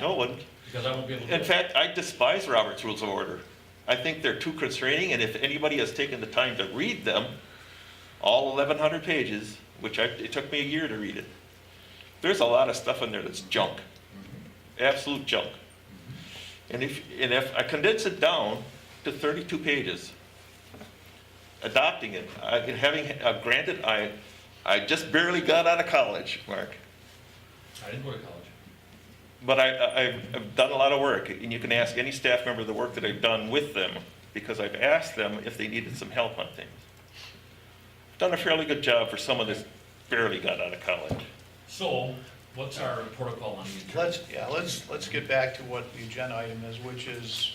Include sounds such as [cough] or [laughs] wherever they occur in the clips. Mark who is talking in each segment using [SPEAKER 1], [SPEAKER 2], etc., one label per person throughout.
[SPEAKER 1] No one,
[SPEAKER 2] because I won't be able to.
[SPEAKER 1] in fact, I despise Robert's Rules of Order. I think they're too constraining, and if anybody has taken the time to read them, all eleven hundred pages, which I, it took me a year to read it, there's a lot of stuff in there that's junk, absolute junk. And if, and if I condense it down to thirty-two pages, adopting it, I, and having, uh, granted, I, I just barely got out of college, Mark.
[SPEAKER 2] I didn't go to college.
[SPEAKER 1] But I- I, I've, I've done a lot of work, and you can ask any staff member the work that I've done with them, because I've asked them if they needed some help on things. Done a fairly good job for someone that's barely got out of college.
[SPEAKER 2] So, what's our protocol on these?
[SPEAKER 3] Let's, yeah, let's, let's get back to what the agenda item is, which is,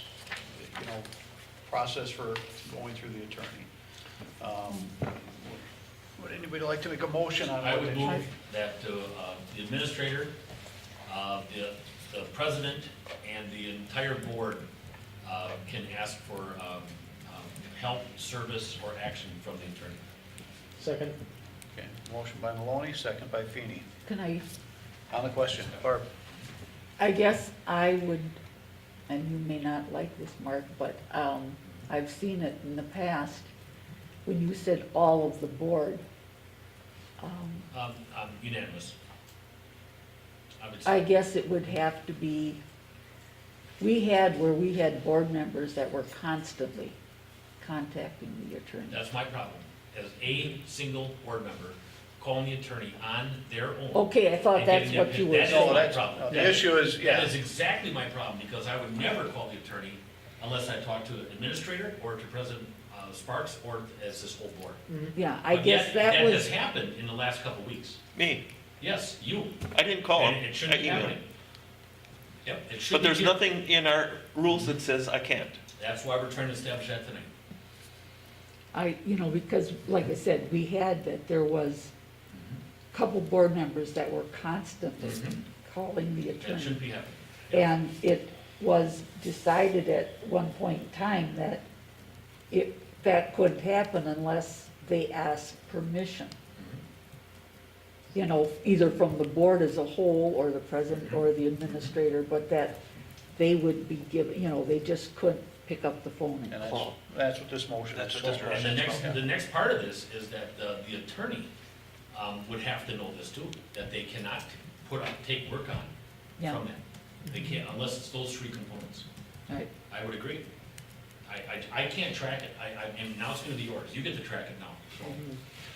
[SPEAKER 3] you know, process for going through the attorney. Um, Would anybody like to make a motion on
[SPEAKER 2] I
[SPEAKER 3] what
[SPEAKER 2] would
[SPEAKER 3] they-
[SPEAKER 2] move that uh, uh, the administrator, uh, the the president, and the entire board uh, can ask for um, um, help, service, or action from the attorney.
[SPEAKER 4] Second.
[SPEAKER 3] Okay, Motion by Maloney, second by Feeney.
[SPEAKER 5] Can I,
[SPEAKER 3] On the question, Barb?
[SPEAKER 5] I guess I would, and you may not like this, Mark, but um, I've seen it in the past, when you said all of the board. um,
[SPEAKER 2] Um, um, Unanimous. I would
[SPEAKER 5] I
[SPEAKER 2] say,
[SPEAKER 5] guess it would have to be, we had where we had board members that were constantly contacting the attorney.
[SPEAKER 2] that's my problem, as a single board member calling the attorney on their own.
[SPEAKER 5] Okay, I thought
[SPEAKER 2] And
[SPEAKER 5] that's
[SPEAKER 2] getting
[SPEAKER 5] what
[SPEAKER 2] that-
[SPEAKER 5] you were
[SPEAKER 2] that's
[SPEAKER 5] saying.
[SPEAKER 2] all
[SPEAKER 3] No,
[SPEAKER 2] my
[SPEAKER 3] that's-
[SPEAKER 2] problem.
[SPEAKER 3] no, The
[SPEAKER 2] That-
[SPEAKER 3] issue is,
[SPEAKER 2] That
[SPEAKER 3] yeah,
[SPEAKER 2] is exactly my problem, because I would never call the attorney unless I talked to the administrator or to President uh, Sparks or as this whole board.
[SPEAKER 5] Yeah, Mm-hmm. I
[SPEAKER 2] But
[SPEAKER 5] guess
[SPEAKER 2] yet,
[SPEAKER 5] that
[SPEAKER 2] That has
[SPEAKER 5] was,
[SPEAKER 2] happened in the last couple of weeks.
[SPEAKER 1] Me,
[SPEAKER 2] Yes, you.
[SPEAKER 1] I didn't call him.
[SPEAKER 2] And it
[SPEAKER 1] Oh, I
[SPEAKER 2] shouldn't be
[SPEAKER 1] emailed.
[SPEAKER 2] happening. Yep, it should
[SPEAKER 1] But
[SPEAKER 2] be.
[SPEAKER 1] there's
[SPEAKER 2] here.
[SPEAKER 1] nothing in our rules that says I can't.
[SPEAKER 2] That's why we're trying to establish that tonight.
[SPEAKER 5] I, you know, because like I said, we had that there was a couple board members that were constantly calling the
[SPEAKER 2] That
[SPEAKER 5] attorney.
[SPEAKER 2] shouldn't be happening. Yep.
[SPEAKER 5] And it was decided at one point in time that it, that couldn't happen unless they asked permission. You know, either from the board as a whole, or the president, or the administrator, but that they would be given, you know, they just couldn't pick up the phone
[SPEAKER 3] and
[SPEAKER 5] and
[SPEAKER 3] that's,
[SPEAKER 5] call.
[SPEAKER 3] that's what this motion is.
[SPEAKER 1] That's what this
[SPEAKER 3] for.
[SPEAKER 2] And the next,
[SPEAKER 3] Yeah.
[SPEAKER 2] the next part of this is that the, the attorney, um, would have to know this too, that they cannot put up, take work on
[SPEAKER 5] Yeah,
[SPEAKER 2] from that. They can't, unless it's those three components.
[SPEAKER 5] right.
[SPEAKER 2] I would agree. I, I, I can't track it, I, I, and now it's gonna be yours, you get to track it now, so.
[SPEAKER 1] Mm-hmm.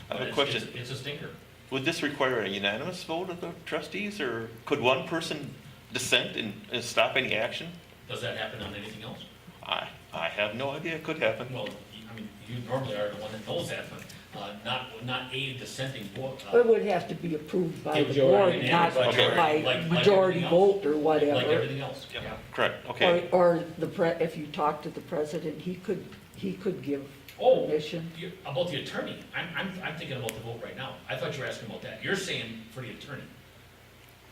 [SPEAKER 1] I
[SPEAKER 2] But
[SPEAKER 1] have a
[SPEAKER 2] it's-
[SPEAKER 1] question.
[SPEAKER 2] it's- It's a stinker.
[SPEAKER 1] Would this require a unanimous vote of the trustees, or could one person dissent and, and stop any action?
[SPEAKER 2] Does that happen on anything else?
[SPEAKER 1] I, I have no idea. It could happen.
[SPEAKER 2] Well, you- I mean, you normally are the one that knows that, but, uh, not, not a dissenting vote. uh,
[SPEAKER 5] It would have to be approved by the
[SPEAKER 4] Majority.
[SPEAKER 5] board, not
[SPEAKER 2] Majority.
[SPEAKER 5] by
[SPEAKER 2] Like- like
[SPEAKER 5] majority
[SPEAKER 2] everything else.
[SPEAKER 5] vote or
[SPEAKER 2] Like
[SPEAKER 5] whatever.
[SPEAKER 2] everything else, yeah.
[SPEAKER 1] Correct,
[SPEAKER 5] Or,
[SPEAKER 1] okay.
[SPEAKER 5] or the pre, if you talk to the president, he could, he could give
[SPEAKER 2] Oh,
[SPEAKER 5] permission.
[SPEAKER 2] you- about the attorney, I'm, I'm, I'm thinking about the vote right now. I thought you were asking about that. You're saying for the attorney.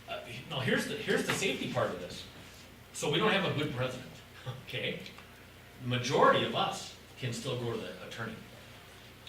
[SPEAKER 2] Uh, Now, here's the, here's the safety part of this. So we don't have a good president, [laughs] okay? Majority of us can still go to the attorney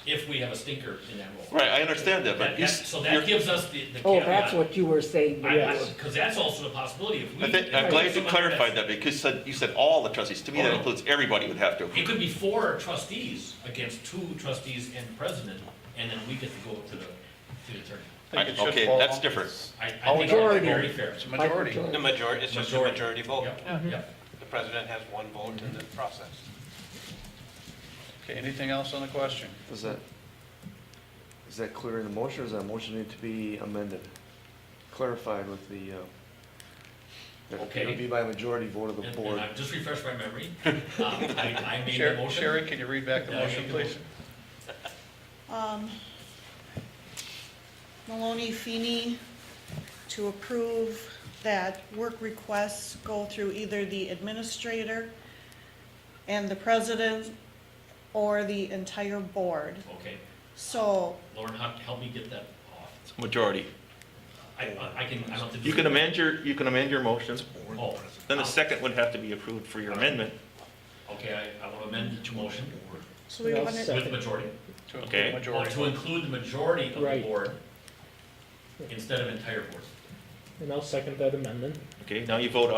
[SPEAKER 2] if we have a stinker in that role.
[SPEAKER 1] Right, I understand that,
[SPEAKER 2] That- that-
[SPEAKER 1] but you,
[SPEAKER 2] So
[SPEAKER 1] you're-
[SPEAKER 2] that gives us the, the
[SPEAKER 5] Oh, that's
[SPEAKER 2] caveat.
[SPEAKER 5] what you were saying. before.
[SPEAKER 2] Because that's also a possibility if we.
[SPEAKER 1] I think,
[SPEAKER 2] if we
[SPEAKER 1] I'm glad
[SPEAKER 2] have
[SPEAKER 1] you
[SPEAKER 2] someone that's-
[SPEAKER 1] clarified that, because you said, you said all the trustees, to me, that includes everybody would have to.
[SPEAKER 2] It could be four trustees against two trustees and president, and then we get to go to the, to the attorney.
[SPEAKER 3] I think it should
[SPEAKER 1] Okay,
[SPEAKER 3] fall-
[SPEAKER 1] that's different.
[SPEAKER 2] I, I
[SPEAKER 3] Oh,
[SPEAKER 2] think that's
[SPEAKER 5] majority.
[SPEAKER 2] very fair.
[SPEAKER 3] It's a majority.
[SPEAKER 5] By
[SPEAKER 6] The majority, it's just a majority
[SPEAKER 1] Oh.
[SPEAKER 6] vote.
[SPEAKER 2] Yep, yep.
[SPEAKER 6] The president has one vote in the process.
[SPEAKER 3] Okay, anything else on the question?
[SPEAKER 7] Is that, is that clear in the motion, or does that motion need to be amended? Clarified with the, uh, that it
[SPEAKER 2] Okay.
[SPEAKER 7] would be by majority vote of the
[SPEAKER 2] And, and
[SPEAKER 7] board.
[SPEAKER 2] I've just refreshed my memory. Um, I, I made the
[SPEAKER 3] Sherry,
[SPEAKER 2] motion.
[SPEAKER 3] Sherry, can you read back the
[SPEAKER 2] Yeah, I
[SPEAKER 3] motion,
[SPEAKER 2] made the
[SPEAKER 3] please?
[SPEAKER 2] motion.
[SPEAKER 8] Um, Maloney Feeney to approve that work requests go through either the administrator and the president or the entire board.
[SPEAKER 2] Okay,
[SPEAKER 8] So,
[SPEAKER 2] Lauren, help, help me get that off.
[SPEAKER 1] Majority.
[SPEAKER 2] I, I can, I don't have to. do
[SPEAKER 1] You can
[SPEAKER 2] it.
[SPEAKER 1] amend your, you can amend your motion,
[SPEAKER 2] Oh.
[SPEAKER 1] then the second would have to be approved for your amendment.
[SPEAKER 2] Okay, I, I will amend the motion
[SPEAKER 8] so we
[SPEAKER 4] Well,
[SPEAKER 8] want to,
[SPEAKER 4] so-
[SPEAKER 2] with majority,
[SPEAKER 3] To include
[SPEAKER 1] Okay.
[SPEAKER 2] or
[SPEAKER 3] majority.
[SPEAKER 2] to include the majority of the
[SPEAKER 4] Right.
[SPEAKER 2] board instead of entire board.
[SPEAKER 4] And I'll second that amendment.
[SPEAKER 1] Okay, now you vote